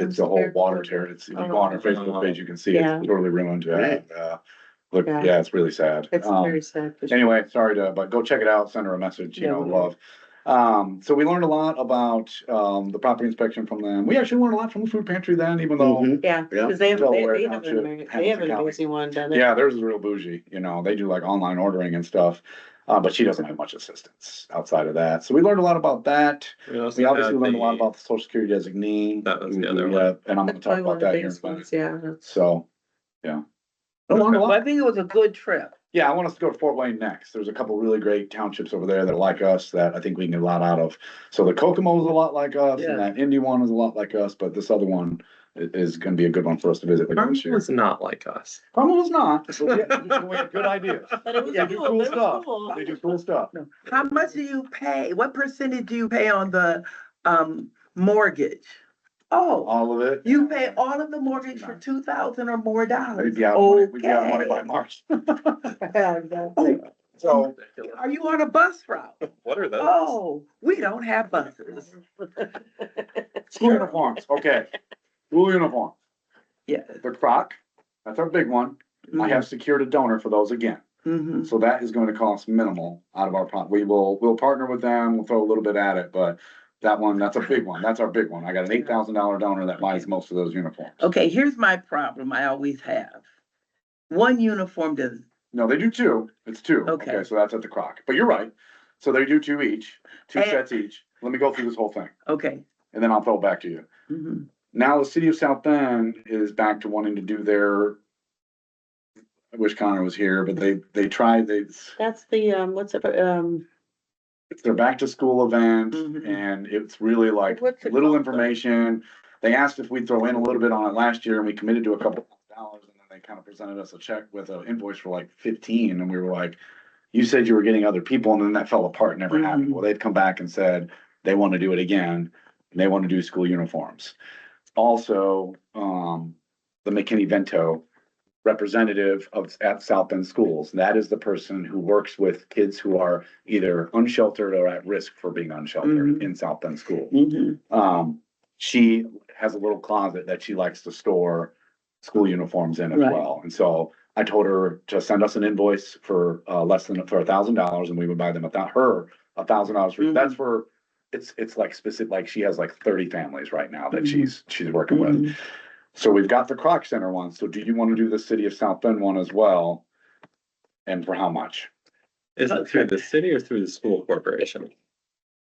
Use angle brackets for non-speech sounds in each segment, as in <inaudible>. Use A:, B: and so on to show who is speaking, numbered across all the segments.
A: It's the whole water tear. It's, if you go on our Facebook page, you can see
B: Yeah.
A: it's totally ruined. Uh, uh, Look,
B: Yeah.
A: yeah, it's really sad.
B: It's
A: Um,
B: very sad. for sure.
A: Anyway, sorry to, but go check it out, send her a message, you
B: Yeah,
A: know,
B: we will.
A: love. Um, so we learned a lot about, um, the property inspection from them. We actually learned a lot from the food pantry then, even though,
C: Mhm.
B: Yeah,
C: Yeah.
B: because they have, they
A: Delaware
B: they have,
A: Township,
B: an amazing- they have an
A: Hamilton County.
B: amazing one down there.
A: yeah, theirs is real bougie, you know, they do like online ordering and stuff. Uh, but she doesn't have much assistance outside of that. So we learned a lot about that. We
C: uh,
A: obviously learned a lot about the social security designee.
C: That was the other one.
A: Yeah, And I'm
B: That's
A: gonna
B: probably
A: talk
B: one of
A: about
B: the
A: that here in
B: biggest
A: a minute.
B: ones, yeah.
A: So, yeah. I learned a
D: Well, I
A: lot.
D: think it was a good trip.
A: Yeah, I want us to go to Fort Wayne next. There's a couple really great townships over there that are like us that I think we can get a lot out of. So the Kokomo is a lot like us
D: Yeah.
A: and that Indy one is a lot like us, but this other one i- is gonna be a good one for us to visit later this
C: Carmen
A: year.
C: was not like us.
A: Carmel is not. but we- we have Good idea.
B: But it was
A: They do
B: cool,
A: cool
B: it was
A: stuff.
B: cool.
A: They do cool stuff.
D: How much do you pay? What percentage do you pay on the um mortgage? Oh,
A: All of it.
D: you pay all of the mortgage for two thousand or more dollars?
A: We'd be out of Uh, money, we'd be out of money by
D: Okay.
A: March.
B: Yeah, exactly.
D: Oh,
A: So
D: Are you on a bus route?
A: <laughs>
C: What are those?
D: Oh, we don't have buses.
A: school uniforms, okay. School uniform,
D: Yes.
A: the croc, that's our big one.
D: Mm.
A: I have secured a donor for those again.
D: Mhm.
A: So that is going to cost minimal out of our, pro- we will, we'll partner with them, we'll throw a little bit at it, but that one, that's a big one, that's our big one. I got an eight thousand dollar donor that buys most of those uniforms.
D: Okay, here's my problem I always have. One uniform does,
A: No, they do two, it's two.
D: Okay.
A: So that's at the Croc, but you're right. So they do two each, two
D: And-
A: sets each. Let me go through this whole thing
D: okay.
A: and then I'll throw it back to you.
D: Mhm.
A: Now the city of South Bend is back to wanting to do their, I wish Connor was here, but they, they tried, they,
B: That's the, um, what's it, um,
A: it's their back to school event
D: Mhm.
A: and it's really like
D: What's
A: <laughs>
D: it
A: little
D: called?
A: information. They asked if we'd throw in a little bit on it last year and we committed to a couple of dollars and then they kind of presented us a check with an invoice for like fifteen and we were like, you said you were getting other people and then that fell apart, never happened.
D: Mhm.
A: Well, they'd come back and said they want to do it again. and They want to do school uniforms. Also, um, the McKinney Vento representative of at South Bend Schools. That is the person who works with kids who are either unsheltered or at risk for being unsheltered
D: Mhm.
A: in South Bend School.
D: Mhm.
A: Um, she has a little closet that she likes to store school uniforms in as
D: Right.
A: well. And so I told her to send us an invoice for uh less than for a thousand dollars and we would buy them without her a thousand dollars. for-
D: Mhm.
A: That's for it's it's like specific like she has like thirty families right now that
D: Mhm.
A: she's she's working with.
D: Mm-hmm.
A: So we've got the Croc Center one, so do you wanna do the city of South Bend one as well? And for how much?
C: Is it through the city or through the school corporation?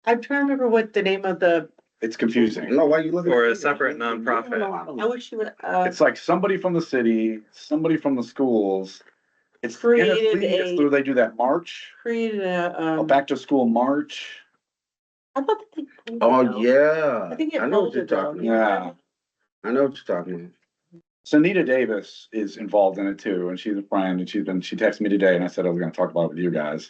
B: I'm trying to remember what the name of the,
A: It's confusing.
E: No, why you looking?
C: Or a separate nonprofit?
B: I wish you would, uh,
A: It's like somebody from the city, somebody from the schools. It's
B: Created
A: NFB, it's
B: a-
A: through, they do that march,
B: created a,
A: a
B: um, I
A: Oh, back to school march.
B: thought that they.
E: Oh, yeah.
B: I think it
E: I know what you're
B: folded though.
A: about.
E: talking
A: Yeah.
E: about. I know what you're talking about.
A: So Nita Davis is involved in it too, and she's a friend, and she's been, she texted me today, and I said I was gonna talk about it with you guys.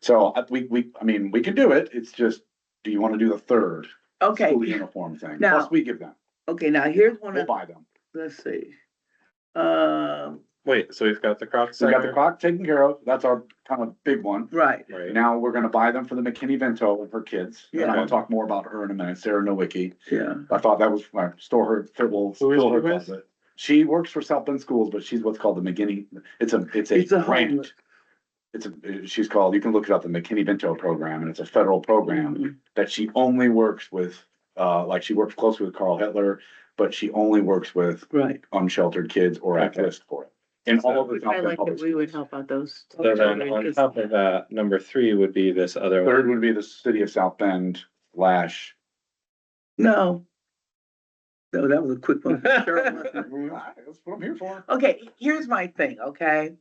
A: So I- we, we, I mean, we could do it, it's just, do you wanna do the third?
D: Okay,
A: School uniform thing,
D: Now-
A: plus we give them,
D: okay, now here's one
A: we'll
D: of,
A: buy them.
D: let's see. Um,
C: Wait, so we've got the Croc
A: So we got the
C: Center?
A: clock taken care of. That's our kind of big one.
D: right,
C: Right.
A: Now we're gonna buy them for the McKinney Vento and her kids. And I'm
C: Yeah.
A: gonna talk more about her in a minute, Sarah Nowicki.
D: yeah.
A: I thought that was, I store her, fit- will
C: Who is
A: fill her
C: she with?
A: closet. She works for South Bend Schools, but she's what's called the McKinney, it's a, it's a
D: It's a
A: grant.
D: homeless.
A: It's a, she's called, you can look it up, the McKinney Vento program, and it's a federal program that she only works with, uh, like she works closely with Carl Hitler, but she only works with
D: Right.
A: unsheltered kids or at
C: Okay.
A: risk for it. In all of the. South
B: I
A: Bend
B: like
A: public
B: that we would
A: schools.
B: help out those.
C: So then on top of that, number three would be this other one.
A: Third would be the city of South Bend slash.
D: No. No, that was a
A: <laughs>
D: quick one. Sure it wasn't.
A: That's what I'm here for.
D: Okay, here's my thing, okay?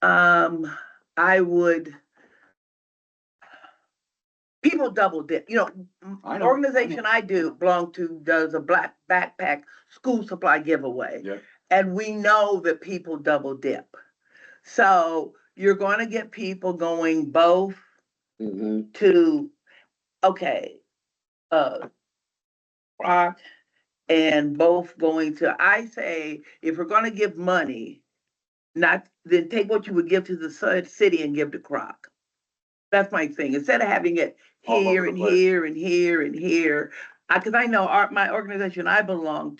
D: Um, I would. People double dip, you know, m-
A: I know, I
D: organization I do belong to does a black backpack school supply giveaway.
A: Yeah.
D: And we know that people double dip. So you're gonna get people going both
C: Mm-hmm.
E: Mhm.
D: to, okay, uh, rock and both going to, I say, if we're gonna give money, not, then take what you would give to the ci- city and give to Croc. That's my thing. Instead of having it
A: All over
D: here
A: the
D: and
A: place.
D: here and here and here, I, cause I know our, my organization I belong